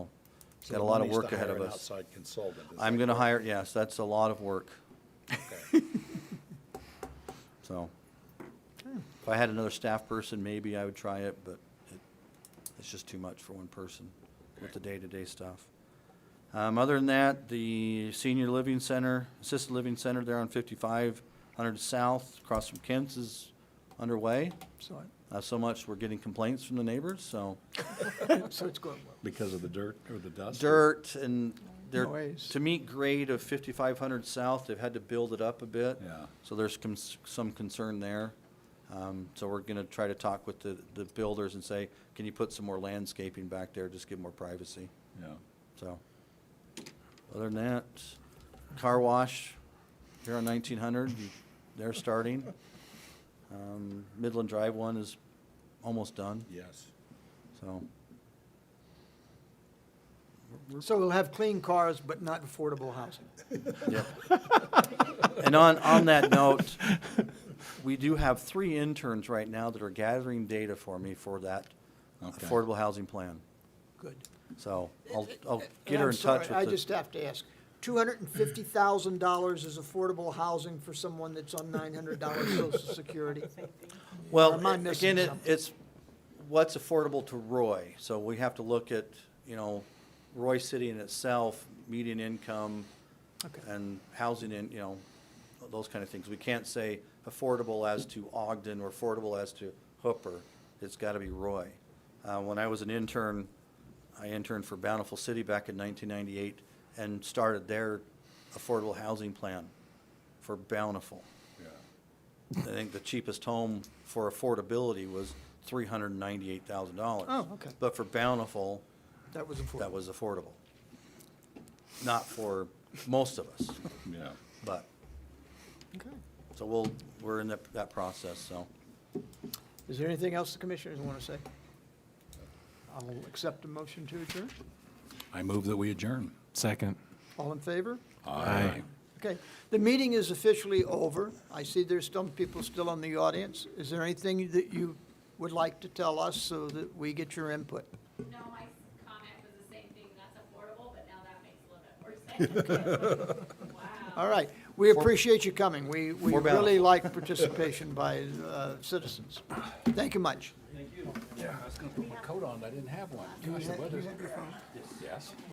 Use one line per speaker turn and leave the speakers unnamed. Got a lot of work ahead of us.
So the money's to hire an outside consultant. is
I'm
that
going to
correct?
hire, yes, that's a lot of work,
Okay.
so.
Hmm.
If I had another staff person, maybe I would try it, but it, it's just too much for one person with the day-to-day stuff. Um, other than that, the senior living center, assisted living center there on fifty-five hundred south, across from Kent's is underway.
So,
Not so much, we're getting complaints from the neighbors, so.
I- so it's going well.
Because of the dirt or the dust? or-
dirt and they're,
Noise.
to meet grade of fifty-five hundred south, they've had to build it up a bit.
Yeah.
So there's com- some concern there. Um, so we're gonna try to talk with the, the builders and say, can you put some more landscaping back there, just give more privacy,
Yeah.
so. Other than that, car wash here on nineteen hundred, they're starting. Um, Midland Drive one is almost done,
Yes.
so.
So we'll have clean cars, but not affordable housing.
Yep. And on, on that note, we do have three interns right now that are gathering data for me for that
Okay.
affordable housing plan.
Good.
So I'll, I'll
And
get her
I'm
in touch
sorry, I
with
just
the,
have to ask, two hundred and fifty thousand dollars is affordable housing for someone that's on nine hundred dollars social security?
well,
am I missing
again, it-
something?
it's what's affordable to Roy. So we have to look at, you know, Roy City in itself, median income
Okay.
and housing in, you know, those kind of things. We can't say affordable as to Ogden or affordable as to Hooper. It's got to be Roy. Uh, When I was an intern, I interned for Bountiful City back in 1998 and started their affordable housing plan for Bountiful.
Yeah.
I think the cheapest home for affordability was $398,000.
Oh, okay.
But for Bountiful,
That was affordable.
that was affordable. Not for most of us,
Yeah.
but.
Okay.
So we'll, we're in that, that process, so.
Is there anything else the commissioners want to say? I'll accept a motion to adjourn.
I move that we adjourn.
Second.
All in favor?
Aye.
Okay, the meeting is officially over. I see there's some people still in the audience. Is there anything that you would like to tell us so that we get your input?
No, my comment was the same thing, that's affordable, but now that makes a little bit more sense. Wow.
All right, we appreciate you coming. We, we
For balance.
really like participation by uh, citizens. Thank you much.
Yeah, I was gonna put my coat on, I didn't have one. Gosh, the weather's. Yes.